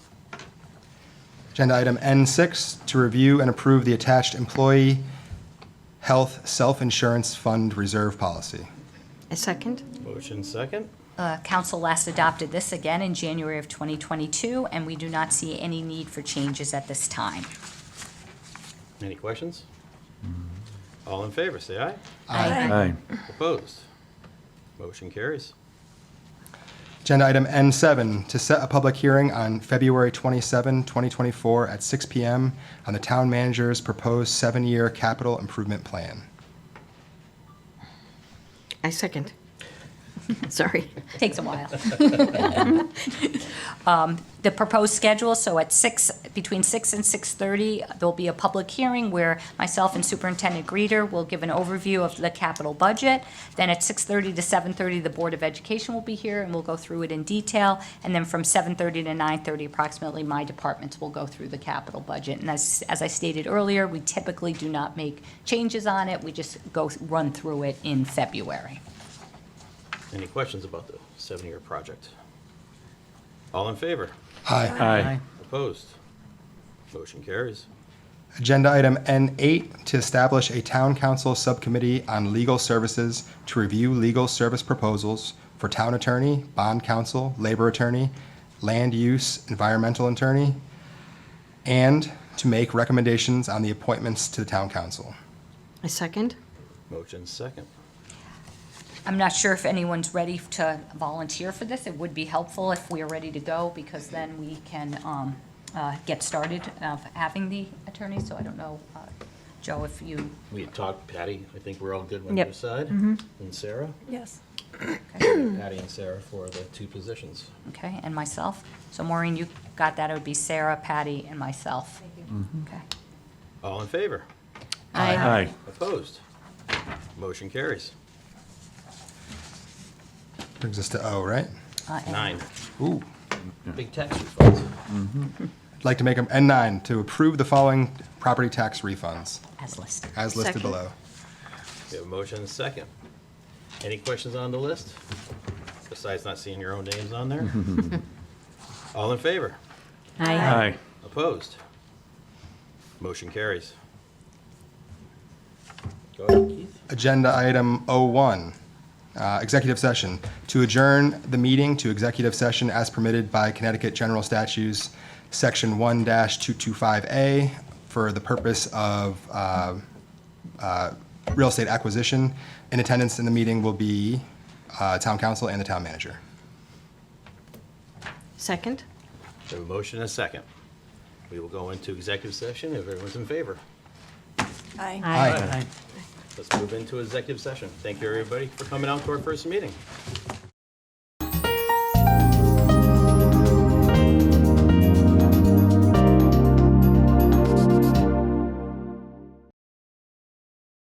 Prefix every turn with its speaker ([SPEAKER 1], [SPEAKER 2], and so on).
[SPEAKER 1] Agenda item N6, to review and approve the attached employee health self-insurance fund reserve policy.
[SPEAKER 2] I second.
[SPEAKER 3] Motion second.
[SPEAKER 4] Uh, Council last adopted this again in January of 2022, and we do not see any need for changes at this time.
[SPEAKER 3] Any questions? All in favor, say aye.
[SPEAKER 5] Aye.
[SPEAKER 3] Opposed? Motion carries.
[SPEAKER 1] Agenda item N7, to set a public hearing on February 27, 2024, at 6 PM on the town manager's proposed seven-year capital improvement plan.
[SPEAKER 2] I second. Sorry.
[SPEAKER 4] Takes a while. Um, The proposed schedule, so at 6, between 6 and 6:30, there'll be a public hearing where myself and Superintendent Greeter will give an overview of the capital budget. Then at 6:30 to 7:30, the Board of Education will be here, and we'll go through it in detail. And then from 7:30 to 9:30 approximately, my departments will go through the capital budget. And as, as I stated earlier, we typically do not make changes on it. We just go, run through it in February.
[SPEAKER 3] Any questions about the seven-year project? All in favor?
[SPEAKER 1] Aye.
[SPEAKER 5] Aye.
[SPEAKER 3] Opposed? Motion carries.
[SPEAKER 1] Agenda item N8, to establish a town council subcommittee on legal services to review legal service proposals for town attorney, bond counsel, labor attorney, land use, environmental attorney, and to make recommendations on the appointments to the town council.
[SPEAKER 2] I second.
[SPEAKER 3] Motion second.
[SPEAKER 4] I'm not sure if anyone's ready to volunteer for this. It would be helpful if we are ready to go, because then we can um, uh, get started of having the attorney, so I don't know, uh, Joe, if you,
[SPEAKER 3] We had talked, Patty, I think we're all good on
[SPEAKER 4] Yep.
[SPEAKER 3] your side. And Sarah?
[SPEAKER 6] Yes.
[SPEAKER 3] Patty and Sarah for the two positions.
[SPEAKER 4] okay, and myself. So Maureen, you got that, it would be Sarah, Patty, and myself. Okay. Uh,
[SPEAKER 3] All in favor?
[SPEAKER 5] Aye.
[SPEAKER 3] Opposed? Motion carries.
[SPEAKER 1] Brings us to O, right?
[SPEAKER 4] Uh, and-
[SPEAKER 3] Nine.
[SPEAKER 1] Ooh.
[SPEAKER 3] Big tax refunds.
[SPEAKER 1] I'd like to make them N9, to approve the following property tax refunds,
[SPEAKER 4] As listed.
[SPEAKER 1] as listed
[SPEAKER 2] Second.
[SPEAKER 1] below.
[SPEAKER 3] We have a motion and a second. Any questions on the list? Besides not seeing your own names on there? All in favor?
[SPEAKER 5] Aye.
[SPEAKER 3] Opposed? Motion carries. Go ahead, Keith.
[SPEAKER 1] Agenda item O1, uh, executive session. To adjourn the meeting to executive session as permitted by Connecticut General Statutes, Section 1-225A, for the purpose of uh, uh, real estate acquisition. In attendance in the meeting will be uh, town council and the town manager.
[SPEAKER 2] Second.
[SPEAKER 3] We have a motion and a second. We will go into executive session if everyone's in favor.
[SPEAKER 6] Aye.
[SPEAKER 1] Aye.
[SPEAKER 3] Let's move into executive session. Thank you, everybody, for coming out to our first meeting.